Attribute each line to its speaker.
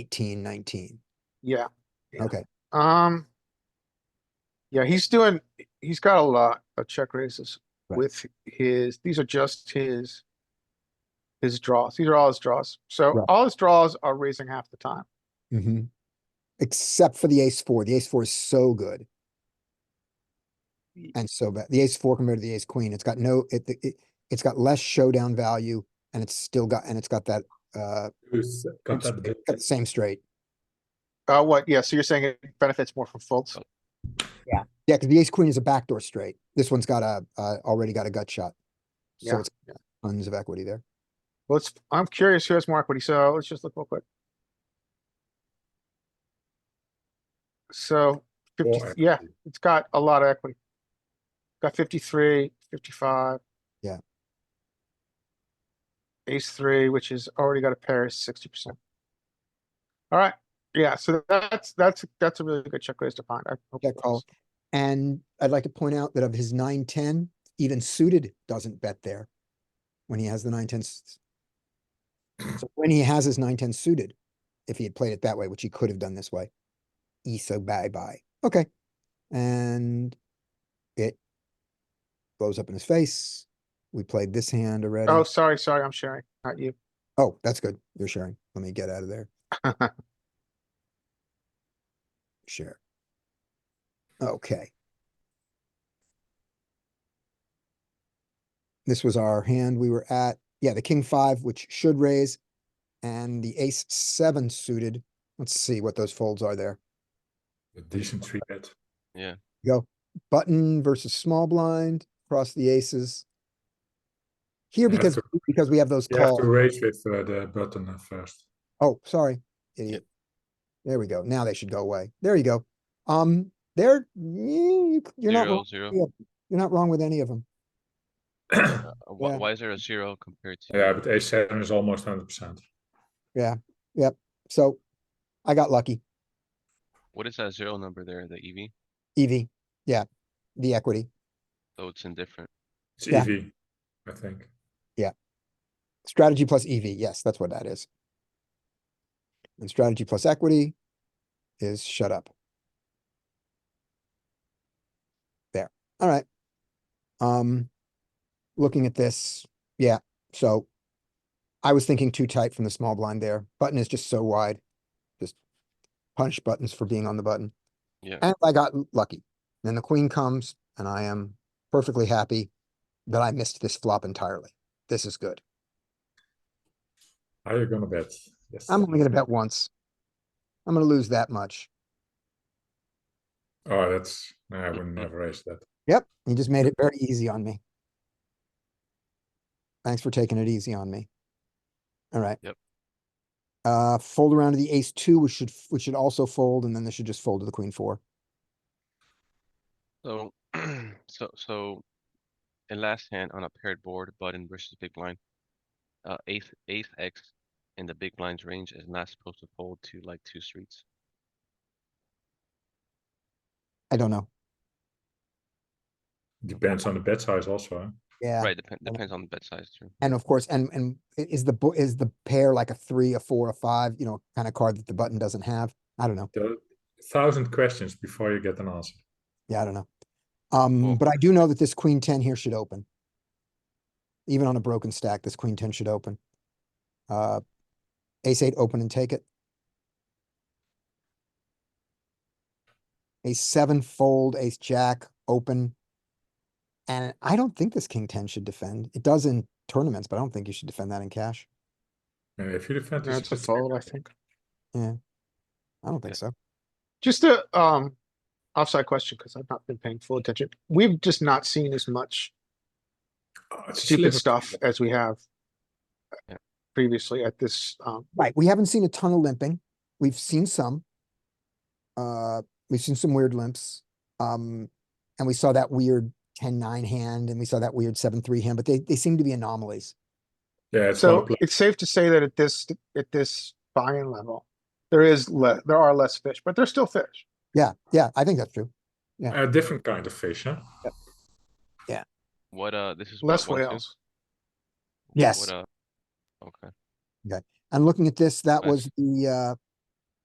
Speaker 1: eighteen, nineteen.
Speaker 2: Yeah. Yeah.
Speaker 1: Okay,
Speaker 2: Um. Yeah, he's doing, he's got a lot of check raises
Speaker 1: Right.
Speaker 2: with his, these are just his. His draws, these are all his draws, so
Speaker 1: Right.
Speaker 2: all his draws are raising half the time,
Speaker 1: hmm Except for the ace four. The ace four is so good.
Speaker 2: Y-
Speaker 1: And so bad. The ace four compared to the ace queen, it's got no, it, it, it's got less showdown value and it's still got, and it's got that, uh,
Speaker 3: Who's got
Speaker 1: it's
Speaker 3: that bit?
Speaker 1: got the same straight.
Speaker 2: uh, what, yeah, so you're saying it benefits more from folds,
Speaker 1: Yeah, because the ace queen is a backdoor straight. This one's got a, uh, already got a gut shot. So
Speaker 2: Yeah,
Speaker 1: it's tons of equity there.
Speaker 2: let's, I'm curious who has more equity, so let's just look real quick. So, fifty,
Speaker 3: Or-
Speaker 2: yeah, it's got a lot of equity. Got fifty-three, fifty-five.
Speaker 1: Yeah.
Speaker 2: Ace three, which is already got a pair, sixty percent. Alright, yeah, so that's, that's, that's a really good check raise to find. I Oh, hope
Speaker 1: Check
Speaker 2: it
Speaker 1: call.
Speaker 2: was.
Speaker 1: And I'd like to point out that of his nine, ten, even suited doesn't bet there. When he has the nine, ten. So when he has his nine, ten suited, if he had played it that way, which he could have done this way. ESO bye bye. Okay. And it blows up in his face. We played this hand already.
Speaker 2: Oh, sorry, sorry, I'm sharing, not you.
Speaker 1: Oh, that's good. You're sharing. Let me get out of there. Share. Okay. This was our hand we were at. Yeah, the king five, which should raise, and the ace seven suited. Let's see what those folds are there.
Speaker 3: A decent three bet.
Speaker 1: Go button versus small blind, cross the aces. Here
Speaker 3: You have
Speaker 1: because,
Speaker 3: to-
Speaker 1: because we have those
Speaker 3: You have
Speaker 1: calls.
Speaker 3: to raise with uh, the button uh, first.
Speaker 1: Oh, sorry, idiot. There we go. Now they should go away. There you go. Um, there, you're not,
Speaker 4: Zero,
Speaker 1: wrong-
Speaker 4: zero.
Speaker 1: yeah, you're not wrong with any of them.
Speaker 4: Uh, Why,
Speaker 1: Yeah.
Speaker 4: why is there a zero compared to?
Speaker 3: Yeah, but ace seven is almost hundred percent.
Speaker 1: So I got lucky.
Speaker 4: What is that zero number there, the E EV?
Speaker 1: EV, yeah, the equity.
Speaker 4: So Oh, it's indifferent.
Speaker 3: It's
Speaker 1: Yeah.
Speaker 3: EV, I think.
Speaker 1: Strategy plus EV, yes, that's what that is. And strategy plus equity is shut up. There, all right. Um, looking at this, yeah, so I was thinking too tight from the small blind there. Button is just so wide. Just punch buttons for being on the button.
Speaker 4: Yeah.
Speaker 1: And I got l- lucky. Then the queen comes and I am perfectly happy that I missed this flop entirely. This is good.
Speaker 3: Are you gonna bet? Yes.
Speaker 1: I'm only gonna bet once. I'm gonna lose that much.
Speaker 3: Oh, that's, no, I would never raise that.
Speaker 1: Yep, you just made it very easy on me. Thanks for taking it easy on me. All right.
Speaker 4: Yep.
Speaker 1: Uh, fold around to the ace two, which should, which should also fold, and then this should just fold to the queen four.
Speaker 4: So, so, so. In last hand on a paired board, button versus big blind. Uh, eighth, eighth X in the big blind's range is not supposed to fold to like two streets.
Speaker 1: I don't know.
Speaker 3: Depends on the bet size also. huh?
Speaker 1: Yeah,
Speaker 4: Right, depend, depends on the bet size too.
Speaker 1: and of course, and, and i- is the, bo- is the pair like a three, a four, a five, you know, kind of card that the button doesn't have? I don't know.
Speaker 3: There are a thousand questions before you get an answer.
Speaker 1: Yeah, I don't know. Um,
Speaker 4: Well-
Speaker 1: but I do know that this queen ten here should open. Even on a broken stack, this queen ten should open. Uh, ace eight, open and take it. Ace seven, fold, ace jack, open. And I don't think this king ten should defend. It does in tournaments, but I don't think you should defend that in cash.
Speaker 3: And if you defend. this,
Speaker 2: That's a
Speaker 3: it's-
Speaker 2: fold, I think.
Speaker 1: I don't think
Speaker 4: Yeah.
Speaker 1: so.
Speaker 2: Just a um offside question, because I've not been paying full attention. We've just not seen as much
Speaker 3: Oh, it's a
Speaker 2: stupid
Speaker 3: sliver.
Speaker 2: stuff as we have
Speaker 4: Yeah.
Speaker 2: previously at this, um,
Speaker 1: Right, we haven't seen a ton of limping. We've seen some. Uh, we've seen some weird limps. Um, and we saw that weird ten nine hand and we saw that weird seven three hand, but they, they seem to be anomalies.
Speaker 3: Yeah, it's one
Speaker 2: so
Speaker 3: play.
Speaker 2: it's safe to say that at this, at this buy-in level, there is le- there are less fish, but there's still fish.
Speaker 1: Yeah, yeah, I think that's true.
Speaker 3: A different kind of fish, huh?
Speaker 4: What, uh, this is. what,
Speaker 2: Less
Speaker 4: one, two?
Speaker 2: whales.
Speaker 4: What,
Speaker 1: Yes.
Speaker 4: uh, Okay,
Speaker 1: And looking at this, that was
Speaker 4: Nice.
Speaker 1: the uh